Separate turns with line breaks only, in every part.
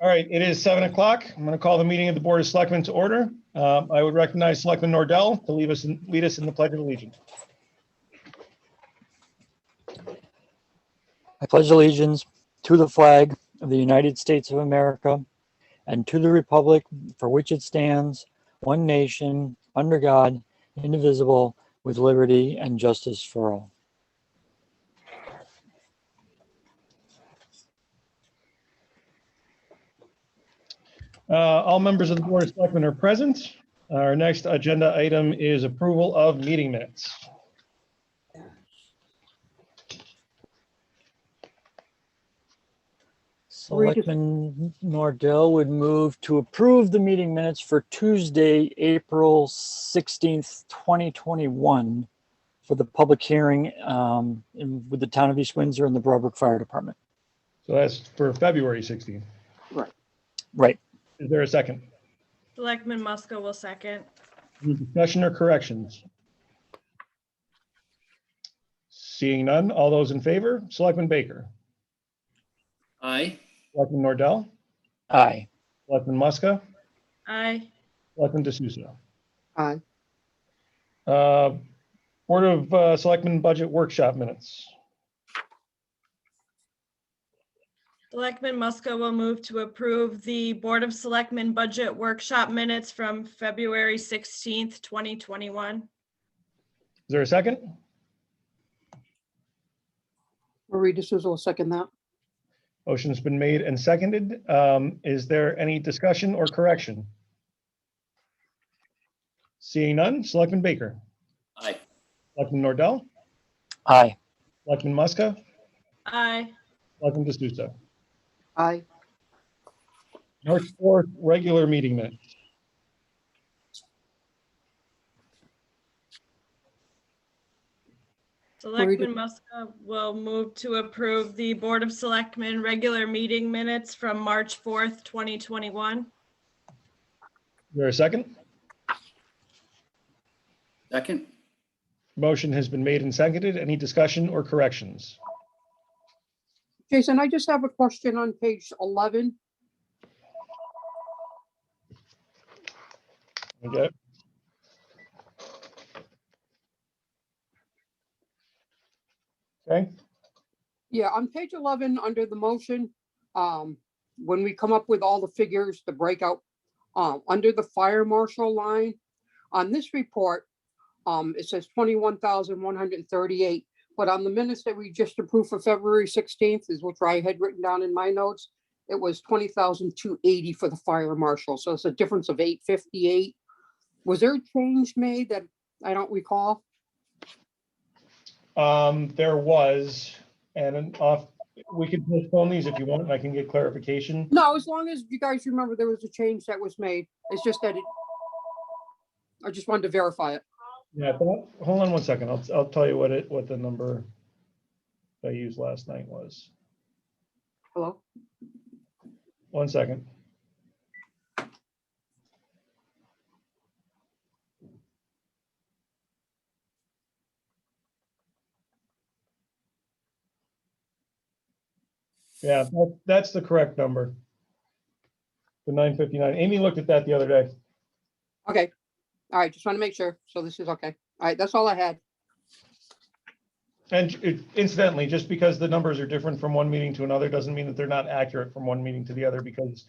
All right, it is seven o'clock. I'm going to call the meeting of the Board of Selectmen to order. Um, I would recognize Selectman Nordell to leave us, in- lead us in the Pledge of Allegiance.
I pledge allegiance to the flag of the United States of America and to the republic for which it stands, one nation, under God, indivisible, with liberty and justice for all.
Uh, All members of the Board of Selectmen are present. Our next agenda item is approval of meeting minutes.
Read it.
Selectman Nordell would move to approve the meeting minutes for Tuesday, April 16th, 2021, for the public hearing um, in- with the town of East Windsor and the Broadbrook Fire Department.
So that's for February 16th.
Right.
Is there a second?
Selectman Muska will second.
Any Discussion or corrections? Seeing none, all those in favor, Selectman Baker,
Aye.
Selectman Nordell,
Aye.
Selectman Muska,
Aye.
Selectman D'Souza.
Aye.
Uh, Board of uh, Selectmen Budget Workshop Minutes.
Selectman Muska will move to approve the Board of Selectmen Budget Workshop Minutes from February 16th, 2021.
Is there a second?
Marie D'Souza will second that.
Motion's been made and seconded. Um, Is there any discussion or correction? Seeing none, Selectman Baker,
Aye.
Selectman Nordell,
Aye.
Selectman Muska,
Aye.
Selectman D'Souza.
Aye.
March 4th, regular meeting minutes.
Selectman Muska will move to approve the Board of Selectmen Regular Meeting Minutes from March 4th, 2021.
Is there a second?
Second.
Motion has been made and seconded. Any discussion or corrections?
Jason, I just have a question on page 11.
Okay. Okay,
Yeah, on page 11, under the motion, um, when we come up with all the figures, the breakout, um, under the fire marshal line, on this report, um, it says 21,138. But on the minutes that we just approved for February 16th is what I had written down in my notes. It was 20,280 for the fire marshal. So it's a difference of 858. Was there a change made that I don't recall?
um, there was, and an off, we could postpone these if you want, and I can get clarification.
No, as long as you guys remember there was a change that was made. It's just that it. I just wanted to verify it.
Yeah, but hold on one second. I'll, I'll tell you what it, what the number I used last night was.
Hello?
One second. Yeah, that- that's the correct number. The nine fifty-nine. Amy looked at that the other day.
Okay. All right, just want to make sure. So this is okay. All right, that's all I had.
And it- incidentally, just because the numbers are different from one meeting to another, doesn't mean that they're not accurate from one meeting to the other, because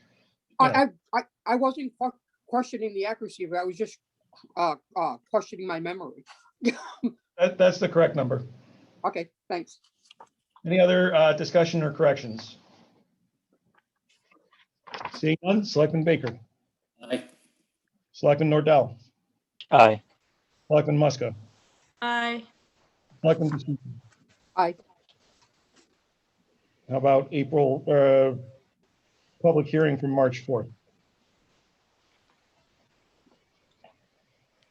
I, I, I- I wasn't que- questioning the accuracy of it. I was just uh, uh, questioning my memory.
that, that's the correct number.
Okay, thanks.
Any other uh, discussion or corrections? Seeing none, Selectman Baker,
Aye.
Selectman Nordell,
Aye.
Selectman Muska,
Aye.
Selectman D'Souza.
Aye.
How about April, uh, public hearing from March 4th?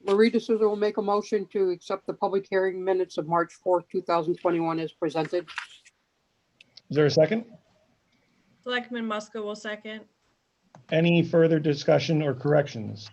Marie D'Souza will make a motion to accept the public hearing minutes of March 4th, 2021 as presented.
Is there a second?
Selectman Muska will second.
Any further discussion or corrections?